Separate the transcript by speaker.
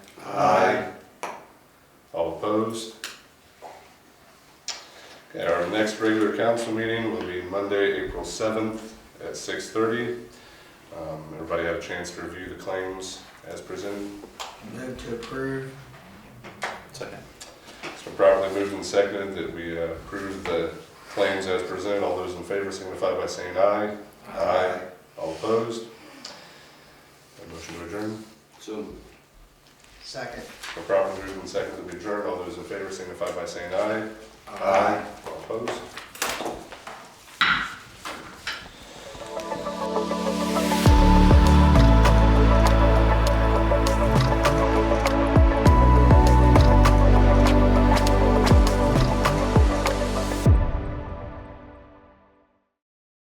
Speaker 1: Opposed? Okay, our next regular council meeting will be Monday, April seventh at six thirty. Um, everybody have a chance to review the claims as presented.
Speaker 2: Move to approve.
Speaker 3: Second.
Speaker 1: It's been properly moved and seconded that we uh, approve the claims as presented. All those in favor signify by saying aye. Aye. All opposed? A motion to adjourn.
Speaker 3: So.
Speaker 2: Second.
Speaker 1: It's been properly moved and seconded that we adjourn. All those in favor signify by saying aye. All opposed?